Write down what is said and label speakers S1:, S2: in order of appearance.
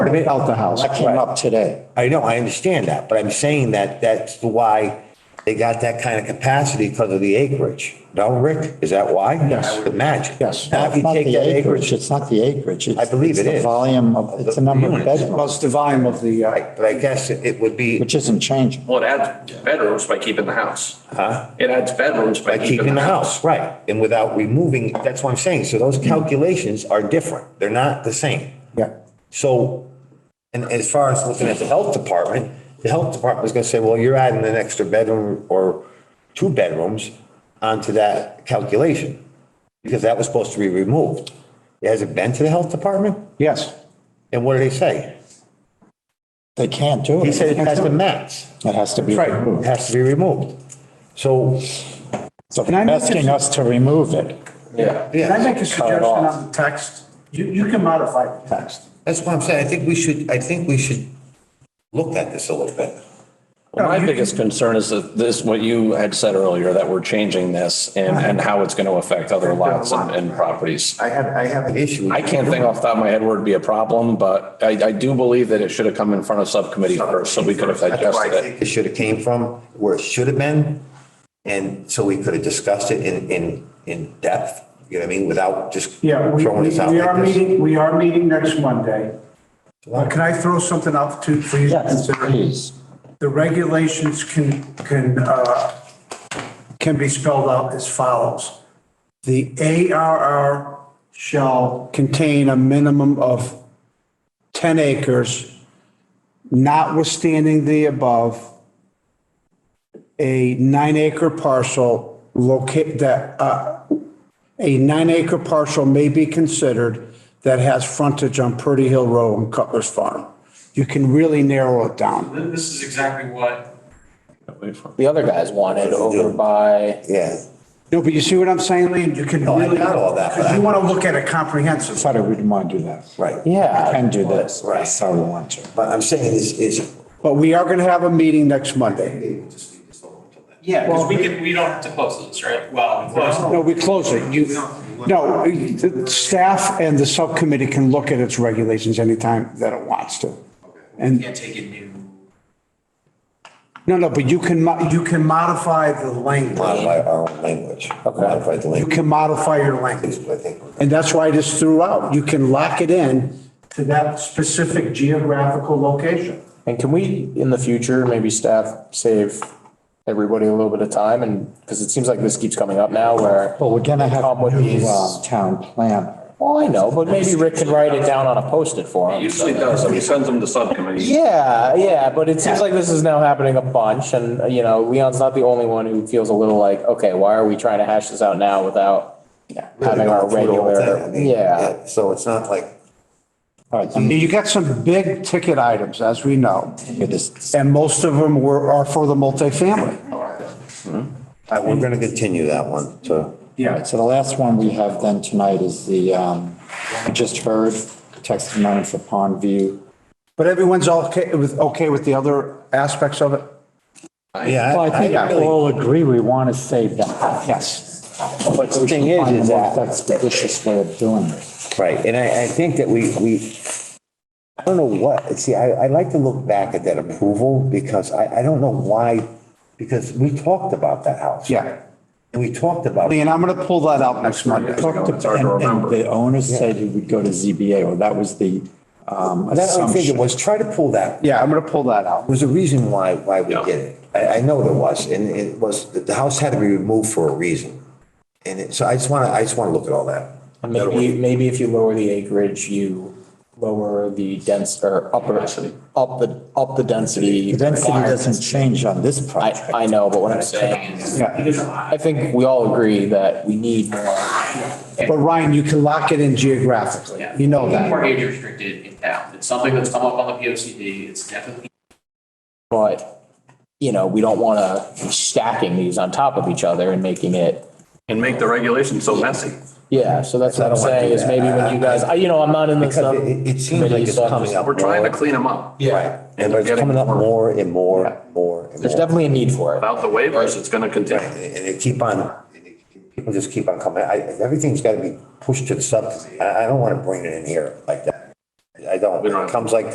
S1: Without the house.
S2: That came up today.
S3: I know, I understand that, but I'm saying that that's why they got that kind of capacity because of the acreage. No, Rick, is that why?
S1: Yes.
S3: I would imagine.
S1: Yes.
S3: Now, if
S2: It's
S3: you
S2: not
S3: take
S2: the
S3: that
S2: acreage,
S3: acreage,
S2: it's not the acreage. it's-
S3: I believe
S2: it's
S3: it
S2: the
S3: is.
S2: Volume of, it's the number of
S3: Units.
S1: Well,
S2: bedrooms,
S1: it's the volume of the, uh,
S3: but I guess it would be
S2: which isn't changing.
S4: Well, it adds bedrooms by keeping the house.
S3: Huh?
S4: It adds bedrooms by
S3: by
S4: keeping the house.
S3: right? And without removing, that's what I'm saying. So those calculations are different. They're not the same.
S1: yeah.
S3: So, and as far as looking at the health department, the health department is gonna say, well, you're adding an extra bedroom or two bedrooms onto that calculation. Because that was supposed to be removed. Has it been to the health department?
S1: Yes.
S3: And what did they say?
S2: They can't do it.
S3: He said it has to match,
S2: It has to be
S1: Right.
S3: it
S2: removed.
S3: has to be removed. So,
S2: So
S1: Can I make a-
S2: asking us to remove it.
S1: Can I
S3: yeah,
S1: make a suggestion on the text? You, you can modify the text.
S3: that's what I'm saying. I think we should, I think we should look at this a little bit.
S5: Well, My biggest concern is that this, what you had said earlier, that we're changing this and, and how it's going to affect other lots and, and properties.
S3: I have, I have an issue.
S5: I can't think off the top of my head where it'd be a problem, but I, I do believe that it should have come in front of subcommittee first, so we could have
S3: That's where I
S5: digested it.
S3: think it should have came from, where it should have been. And so we could have discussed it in, in, in depth, you know what I mean, without just
S1: Yeah, we,
S3: throwing this out
S1: we are
S3: like this.
S1: meeting, we are meeting next Monday. Uh, Can I throw something out too, please? Consider-
S2: Please.
S1: The regulations can, can, uh, can be spelled out as follows. The ARR shall contain a minimum of 10 acres, notwithstanding the above, a nine acre parcel locate, that, uh, a nine acre parcel may be considered that has frontage on Purdy Hill Road and Cutler's Farm. You can really narrow it down.
S6: This is exactly what
S7: The other guys wanted over by,
S3: Yeah,
S1: No, but you see what I'm saying, Lee? You can
S3: No, I
S1: really.
S3: got all that, but
S1: Because
S3: I-
S1: you want to look at it comprehensive.
S2: Sorry, we didn't want to do that.
S3: right.
S7: yeah.
S2: Can do this.
S3: Right.
S2: That's how we want to.
S3: But I'm saying is, is.
S1: But we are going to have a meeting next Monday.
S6: Yeah, because we can, we don't have to close this, right? Well, we close.
S1: No, we close it. You, no, the staff and the subcommittee can look at its regulations anytime that it wants to.
S6: We
S1: And,
S6: can't take a new.
S1: no, no, but you can, mo- you can modify the language.
S3: Modify our own language, modify the
S1: You
S3: language,
S1: can modify your language.
S3: I think.
S1: And that's why I just threw out, you can lock it in to that specific geographical location.
S7: And can we, in the future, maybe staff save everybody a little bit of time and, because it seems like this keeps coming up now where.
S2: Well, we're gonna have
S7: Come with
S2: a new,
S7: these-
S2: uh, town planner.
S7: Well, I know, but maybe Rick can write it down on a post-it for
S5: It
S7: him.
S5: Usually does, we send them to subcommittee.
S7: Yeah, yeah, but it seems like this is now happening a bunch and, uh, you know, Leon's not the only one who feels a little like, okay, why are we trying to hash this out now without having our
S3: Really going through the whole thing, I
S7: regular,
S3: mean,
S7: yeah.
S3: So it's not like,
S2: All right, then
S1: You got some big ticket items, as we know.
S2: do this.
S1: And most of them were, are for the multifamily.
S3: all right, we're gonna continue that one, so.
S2: All right, so the last one we have then tonight is the, um, we just heard testimony for Pond View.
S1: But everyone's okay with, okay with the other aspects of it?
S3: Yeah.
S2: Well, I think
S3: I
S2: we
S3: really-
S2: all agree we want to save that.
S1: Yes.
S3: But the thing is, is that.
S2: That's the vicious way of doing it.
S3: Right, and I, I think that we, we, I don't know what, see, I, I like to look back at that approval because I, I don't know why, because we talked about that house.
S1: Yeah.
S3: And we talked about,
S1: Lean, I'm going to pull that out next Monday.
S5: It's hard to
S2: And- and
S5: remember.
S2: The owners said it would go to ZBA, well, that was the, um,
S3: that's what I'm thinking,
S2: assumption.
S3: was try to pull that,
S1: Yeah, I'm going to pull that out.
S3: was a reason why, why we
S5: Yeah.
S3: did it. I, I know there was, and it was, the, the house had to be removed for a reason. And it, so I just wanna, I just wanna look at all that.
S7: And Maybe, maybe if you lower the acreage, you lower the dense, or upper, up the, up the density.
S2: The density doesn't change on this
S7: I,
S2: project.
S7: I know, but what I'm saying is, I think we all agree that we need more.
S1: But Ryan, you can lock it in geographically. You know
S6: More
S1: that.
S6: age restricted in town. It's something that's come up on the P O C D. It's definitely
S7: But, you know, we don't want to be stacking these on top of each other and making it,
S5: And make the regulations so messy.
S7: yeah, so that's
S3: I
S7: what I'm
S3: don't wanna do
S7: saying is
S3: that.
S7: maybe when you guys, I, you know, I'm not in the.
S3: Because it- it, it seems like
S7: subcommittee,
S3: it's
S7: so I'm just-
S3: coming up.
S5: We're trying to
S3: more.
S5: clean them up.
S3: Right, and but it's
S5: Getting
S3: coming up
S5: more.
S3: more and more, and more and more.
S7: There's definitely a need for it.
S5: Without the waivers, it's going to continue.
S3: Right, and and they keep on, people just keep on coming, I, everything's gotta be pushed to the sub, I, I don't wanna bring it in here like that. I don't,
S5: We don't
S3: when it
S5: have-
S3: comes like